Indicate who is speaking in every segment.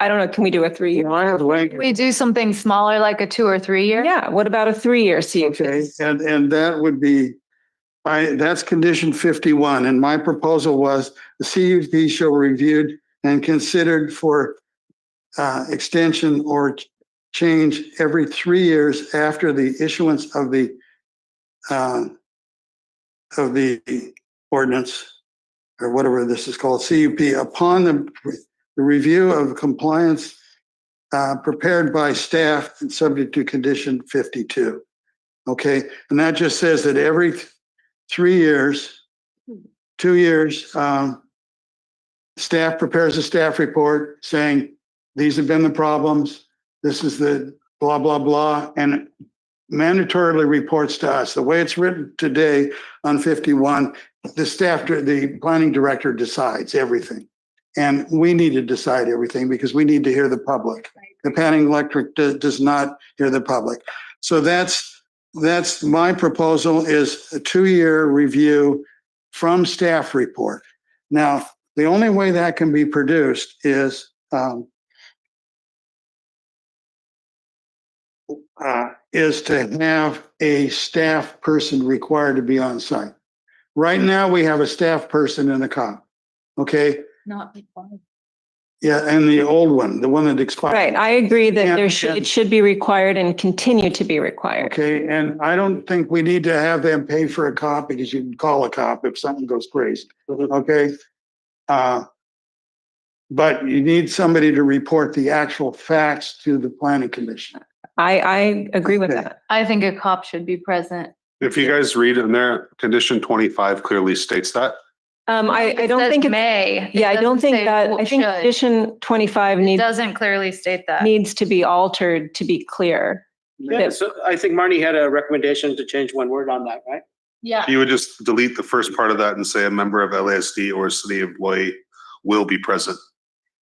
Speaker 1: I don't know, can we do a
Speaker 2: You
Speaker 1: three-year?
Speaker 2: know, I have language.
Speaker 3: We do something smaller, like a two or three year?
Speaker 1: Yeah, what about a three-year
Speaker 2: Okay,
Speaker 1: CUP?
Speaker 2: and, and that would be, I, that's condition fifty-one, and my proposal was the CUP shall be reviewed and considered for uh, extension or ch- change every three years after the issuance of the uh, of the ordinance, or whatever this is called, CUP, upon the, the review of compliance uh, prepared by staff and subject to condition fifty-two. Okay, and that just says that every th- three years, two years, um, staff prepares a staff report saying, these have been the problems, this is the blah, blah, blah, and mandatorily reports to us. The way it's written today on fifty-one, the staff, the planning director decides everything. And we need to decide everything because we need to hear the public. The planning electric does, does not hear the public. So that's that's my proposal is a two-year review from staff report. Now, the only way that can be produced is um, uh, is to have a staff person required to be on site. Right now, we have a staff person in the cop. Okay,
Speaker 3: Not.
Speaker 2: yeah, and the old one, the one that expired.
Speaker 1: Right, I agree that
Speaker 2: Yeah,
Speaker 1: there should,
Speaker 2: and-
Speaker 1: it should be required and continue to be required.
Speaker 2: Okay, and I don't think we need to have them pay for a cop because you can call a cop if something goes crazy, okay? Uh, But you need somebody to report the actual facts to the planning commission.
Speaker 1: I, I agree with
Speaker 2: Okay.
Speaker 1: that.
Speaker 3: I think a cop should be present.
Speaker 4: If you guys read in there, condition twenty-five clearly states that.
Speaker 1: Um, I, I
Speaker 3: It
Speaker 1: don't
Speaker 3: says
Speaker 1: think, it's-
Speaker 3: May.
Speaker 1: yeah, I don't think that, I think
Speaker 3: It
Speaker 1: condition twenty-five needs,
Speaker 3: doesn't clearly state that.
Speaker 1: needs to be altered to be clear.
Speaker 5: Yeah, so I think Marnie had a recommendation to change one word on that, right?
Speaker 3: Yeah.
Speaker 4: You would just delete the first part of that and say a member of LASD or a city employee will be present.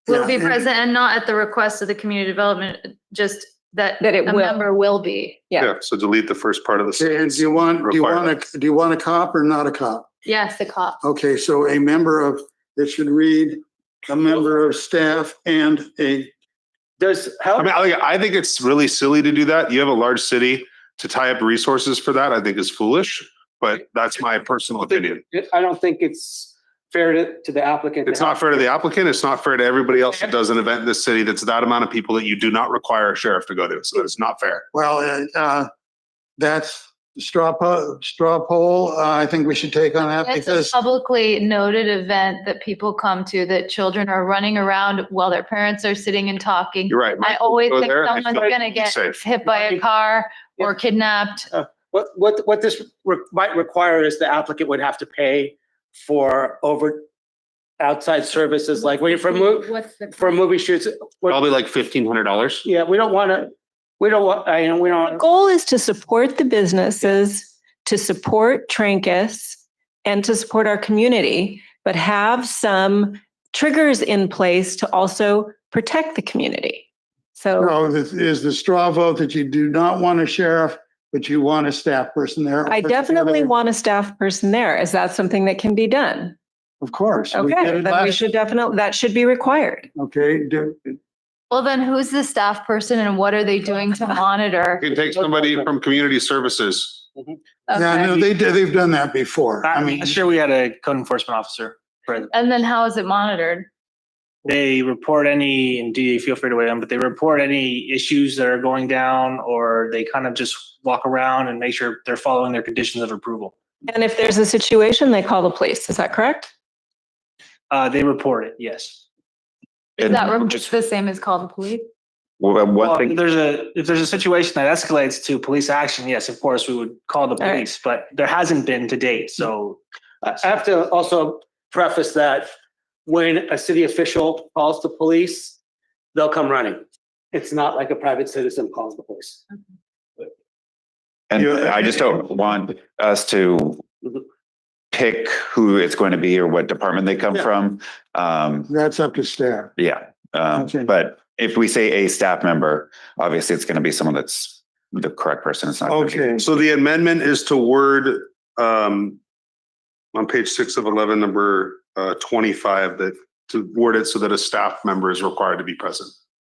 Speaker 3: Will be
Speaker 2: Yeah, and-
Speaker 3: present and not at the request of the community development, just that.
Speaker 1: That it
Speaker 3: a
Speaker 1: will.
Speaker 3: Member will be.
Speaker 1: Yeah.
Speaker 4: So delete the first part of the
Speaker 2: And
Speaker 4: sentence.
Speaker 2: do you want, do you
Speaker 4: Require
Speaker 2: want a, do you want a cop or not a cop?
Speaker 3: Yes, the cop.
Speaker 2: Okay, so a member of, it should read, a member of staff and a,
Speaker 5: Does,
Speaker 4: I
Speaker 5: how,
Speaker 4: mean, I, I think it's really silly to do that. You have a large city to tie up resources for that, I think is foolish, but that's my personal opinion.
Speaker 5: I don't think it's fair to, to the applicant. to
Speaker 4: It's not
Speaker 5: have-
Speaker 4: fair to the applicant. It's not fair to everybody else that does an event in this city that's that amount of people that you do not require a sheriff to go to. So it's not fair.
Speaker 2: well, uh, uh, that's straw po, straw poll. Uh, I think we should take on that
Speaker 3: It's a
Speaker 2: because.
Speaker 3: publicly noted event that people come to, that children are running around while their parents are sitting and talking.
Speaker 4: You're right.
Speaker 3: I
Speaker 4: Mike.
Speaker 3: always
Speaker 4: Go
Speaker 3: think
Speaker 4: there and
Speaker 3: someone's
Speaker 4: feel
Speaker 3: gonna get
Speaker 4: safe.
Speaker 3: hit by a car or kidnapped.
Speaker 5: What, what, what this re- might require is the applicant would have to pay for over outside services, like wait for mov
Speaker 3: What's the?
Speaker 5: for movie shoots. We're-
Speaker 4: Probably like fifteen hundred dollars.
Speaker 5: Yeah, we don't want to, we don't want, I, we
Speaker 1: The
Speaker 5: don't,
Speaker 1: goal is to support the businesses, to support Trancas, and to support our community, but have some triggers in place to also protect the community. So
Speaker 2: No, this is the straw vote that you do not want a sheriff, but you want a staff person there.
Speaker 1: I definitely want a staff person there. Is that something that can be done?
Speaker 2: Of course. we did
Speaker 1: Okay, then
Speaker 2: it
Speaker 1: we
Speaker 2: last-
Speaker 1: should definitely, that should be required.
Speaker 2: Okay, do-
Speaker 3: Well, then who's the staff person and what are they doing to monitor?
Speaker 4: You can take somebody from community services.
Speaker 2: yeah,
Speaker 3: Okay.
Speaker 2: no, they, did- they've done that before.
Speaker 1: Uh,
Speaker 2: I mean,
Speaker 6: Last year we had a code enforcement officer.
Speaker 3: And then how is it monitored?
Speaker 6: They report any, and DA, feel free to weigh in, but they report any issues that are going down or they kind of just walk around and make sure they're following their conditions of approval.
Speaker 1: And if there's a situation, they call the police. Is that correct?
Speaker 6: Uh, they report it, yes.
Speaker 3: Is
Speaker 4: And
Speaker 3: that re-
Speaker 4: just-
Speaker 3: the same as call the police?
Speaker 4: Well,
Speaker 6: Well,
Speaker 4: One
Speaker 6: if
Speaker 4: thing,
Speaker 6: there's a, if there's a situation that escalates to police action, yes, of course, we would call the
Speaker 1: right.
Speaker 6: police, but there hasn't been to date, so.
Speaker 5: I I have to also preface that when a city official calls the police, they'll come running. It's not like a private citizen calls the police.
Speaker 7: And
Speaker 2: Yeah.
Speaker 7: I just don't want us to
Speaker 5: Mhm.
Speaker 7: pick who it's going to be or what department they come
Speaker 5: Yeah.
Speaker 7: from. Um,
Speaker 2: that's up to staff.
Speaker 7: yeah, um,
Speaker 2: Okay.
Speaker 7: but if we say a staff member, obviously it's going to be someone that's the correct person. It's not. gonna be-
Speaker 2: Okay,
Speaker 4: so the amendment is to word, um, on page six of eleven, number, uh, twenty-five, that to word it so that a staff member is required to be present.